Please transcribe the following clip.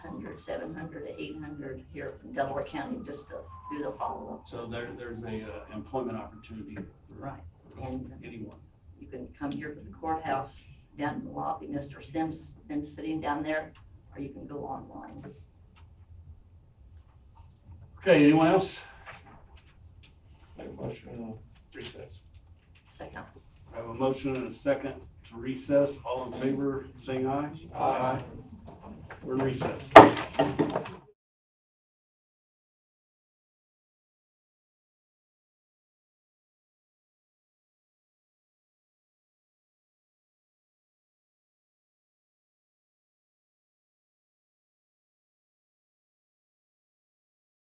seven hundred to eight hundred here from Delaware County just to do the follow-up. So there, there's a uh, employment opportunity for Right. And anyone. you can come here to the courthouse, down in the lobby, Mr. Sims been sitting down there, or you can go online. Okay, anyone else? Make a motion on recess. Second, I have a motion and a second to recess. All in favor, saying aye. Aye. We're in recess.